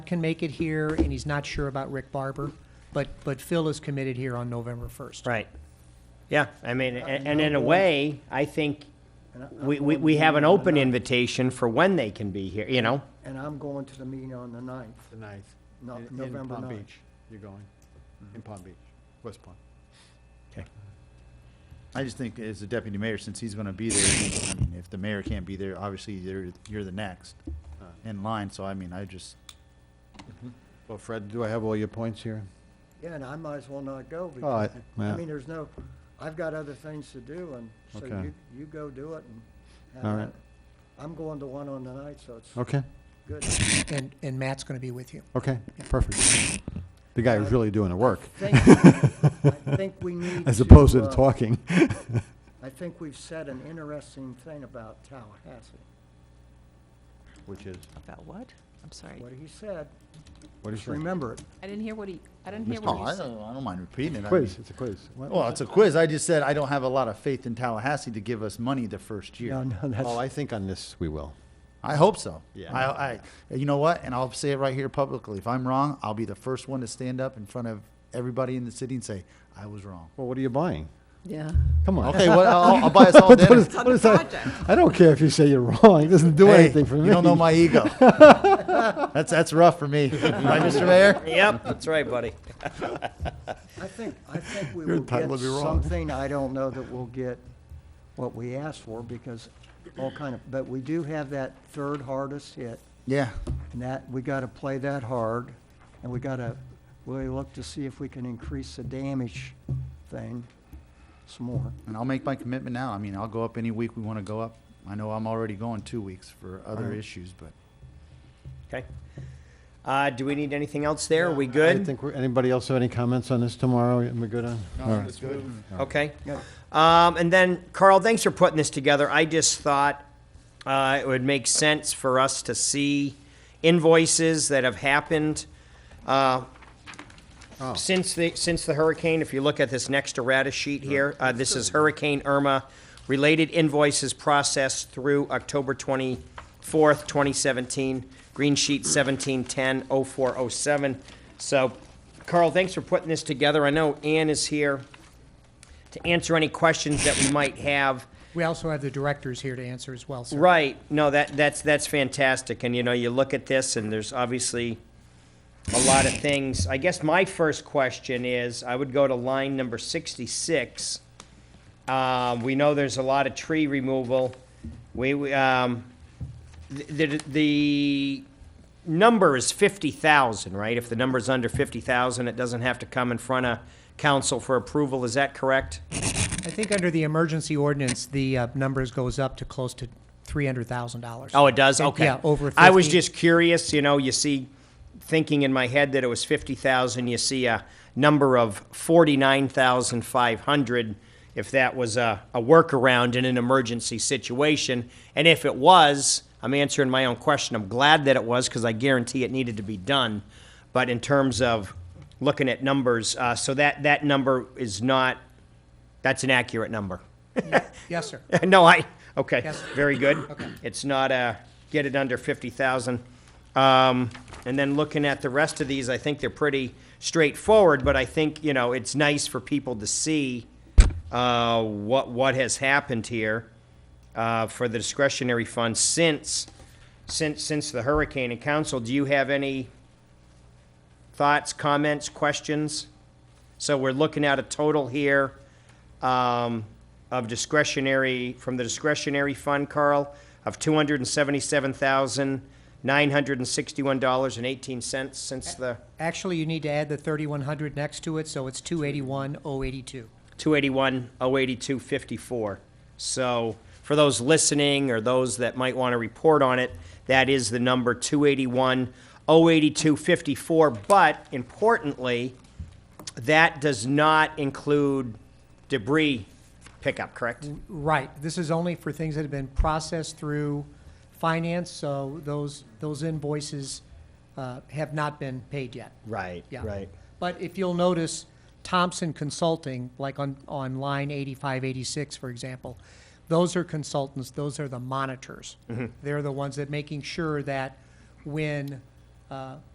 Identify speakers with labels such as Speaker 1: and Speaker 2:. Speaker 1: can make it here, and he's not sure about Rick Barber, but, but Phil is committed here on November 1st.
Speaker 2: Right. Yeah, I mean, a- and in a way, I think we, we, we have an open invitation for when they can be here, you know?
Speaker 3: And I'm going to the meeting on the ninth.
Speaker 4: The ninth.
Speaker 3: No-
Speaker 4: in-
Speaker 3: November
Speaker 4: In Palm
Speaker 3: ninth. Mm-hmm.
Speaker 4: Beach, you're going, in Palm Beach, West Palm.
Speaker 5: I just think as the deputy mayor, since he's gonna be there, I mean, if the mayor can't be there, obviously you're, you're the next in line, so I mean, I just,
Speaker 4: Well, Fred, do I have all your points here?
Speaker 3: Yeah, and I might as well not go
Speaker 4: Oh, I-
Speaker 3: because, I
Speaker 4: yeah.
Speaker 3: mean, there's no, I've got other things to do and so
Speaker 4: Okay.
Speaker 3: you, you go do it and.
Speaker 4: All
Speaker 3: have
Speaker 4: right.
Speaker 3: at it. I'm going to one on the ninth, so it's
Speaker 4: Okay,
Speaker 3: good.
Speaker 1: And, and Matt's going to be with you.
Speaker 4: okay, perfect. The guy was really doing the work,
Speaker 3: Think- I think we need
Speaker 4: as opposed to
Speaker 3: uh,
Speaker 4: the talking.
Speaker 3: I think we've said an interesting thing about Tallahassee,
Speaker 4: Which is,
Speaker 6: About what? I'm sorry.
Speaker 3: what he said.
Speaker 4: what is
Speaker 3: Just remember it.
Speaker 6: I didn't hear what he, I didn't hear
Speaker 5: oh,
Speaker 6: what
Speaker 5: I
Speaker 6: he said.
Speaker 5: don't, I don't mind repeating it. I
Speaker 4: Quiz,
Speaker 5: mean-
Speaker 4: it's a quiz. What-
Speaker 5: Well, it's a quiz. I just said I don't have a lot of faith in Tallahassee to give us money the first
Speaker 3: No,
Speaker 5: year.
Speaker 3: no,
Speaker 4: Oh,
Speaker 3: that's,
Speaker 4: I think on this we will.
Speaker 5: I hope so.
Speaker 4: Yeah.
Speaker 5: I, I, you know what? And I'll say it right here publicly. If I'm wrong, I'll be the first one to stand up in front of everybody in the city and say, I was wrong.
Speaker 4: Well, what are you buying?
Speaker 6: Yeah.
Speaker 4: Come on.
Speaker 5: Okay, well, I'll, I'll buy us all
Speaker 4: What
Speaker 5: dinner.
Speaker 4: is-
Speaker 6: It's on
Speaker 4: what
Speaker 6: the
Speaker 4: is that?
Speaker 6: project.
Speaker 4: I don't care if you say you're wrong, it doesn't do
Speaker 5: Hey,
Speaker 4: anything for me.
Speaker 5: You don't know my ego. that's that's rough for me, right, Mr. Mayor?
Speaker 2: Yep, that's right, buddy.
Speaker 3: I think, I think we
Speaker 4: You're
Speaker 3: will get
Speaker 4: entitled to be wrong.
Speaker 3: something, I don't know that we'll get what we asked for, because all kind of, but we do have that third hardest hit,
Speaker 5: Yeah.
Speaker 3: and that, we gotta play that hard, and we gotta, really look to see if we can increase the damage thing some more.
Speaker 5: And I'll make my commitment now. I mean, I'll go up any week we want to go up. I know I'm already going two weeks for other
Speaker 3: Right.
Speaker 5: issues, but
Speaker 2: Okay. Uh, do we need anything else there? Are we
Speaker 4: I
Speaker 2: good?
Speaker 4: think, we're- anybody else have any comments on this tomorrow? Am we good on? All right.
Speaker 2: Okay.
Speaker 3: Yeah.
Speaker 2: Um, and then Carl, thanks for putting this together. I just thought, uh, it would make sense for us to see invoices that have happened, uh, since the, since the hurricane. If you look at this next errata sheet here, uh, this is Hurricane Irma. Related invoices processed through October twenty-fourth, twenty seventeen, green sheet seventeen ten oh four oh seven. So Carl, thanks for putting this together. I know Ann is here to answer any questions that we might have.
Speaker 1: We also have the directors here to answer as well, sir.
Speaker 2: Right, no, that, that's, that's fantastic, and you know, you look at this, and there's obviously a lot of things. I guess my first question is, I would go to line number sixty-six. Uh, we know there's a lot of tree removal. We, we, um, the, the, the number is fifty thousand, right? If the number's under fifty thousand, it doesn't have to come in front of council for approval, is that correct?
Speaker 1: I think under the emergency ordinance, the uh, numbers goes up to close to $300,000.
Speaker 2: Oh, it does?
Speaker 1: And-
Speaker 2: Okay.
Speaker 1: Yeah, over 50.
Speaker 2: I was just curious, you know, you see, thinking in my head that it was fifty thousand, you see a number of forty-nine thousand five hundred, if that was a, a workaround in an emergency situation. And if it was, I'm answering my own question, I'm glad that it was, because I guarantee it needed to be done. But in terms of looking at numbers, uh, so that, that number is not, that's an accurate number.
Speaker 1: Yes, sir.
Speaker 2: No, I, okay,
Speaker 1: Yes.
Speaker 2: very good. It's not a, get it under fifty thousand. Um, and then looking at the rest of these, I think they're pretty straightforward, but I think, you know, it's nice for people to see, uh, what, what has happened here, uh, for the discretionary fund since, since, since the hurricane. And council, do you have any thoughts, comments, questions? So we're looking at a total here, um, of discretionary, from the discretionary fund, Carl, of two hundred and seventy-seven thousand, nine hundred and sixty-one dollars and eighteen cents since the
Speaker 1: Actually, you need to add the 3,100 next to it, so it's 281,082.
Speaker 2: two eighty-one, oh eighty-two, fifty-four. So for those listening or those that might want to report on it, that is the number two eighty-one, oh eighty-two, fifty-four. But importantly, that does not include debris pickup, correct?
Speaker 1: Right, this is only for things that have been processed through finance, so those, those invoices uh, have not been paid yet.
Speaker 2: Right,
Speaker 1: Yeah. But if you'll notice, Thompson Consulting, like on, on line eighty-five, eighty-six, for example, those are consultants, those
Speaker 2: Mm-hmm.
Speaker 1: are the monitors. They're the ones that making sure that when, uh,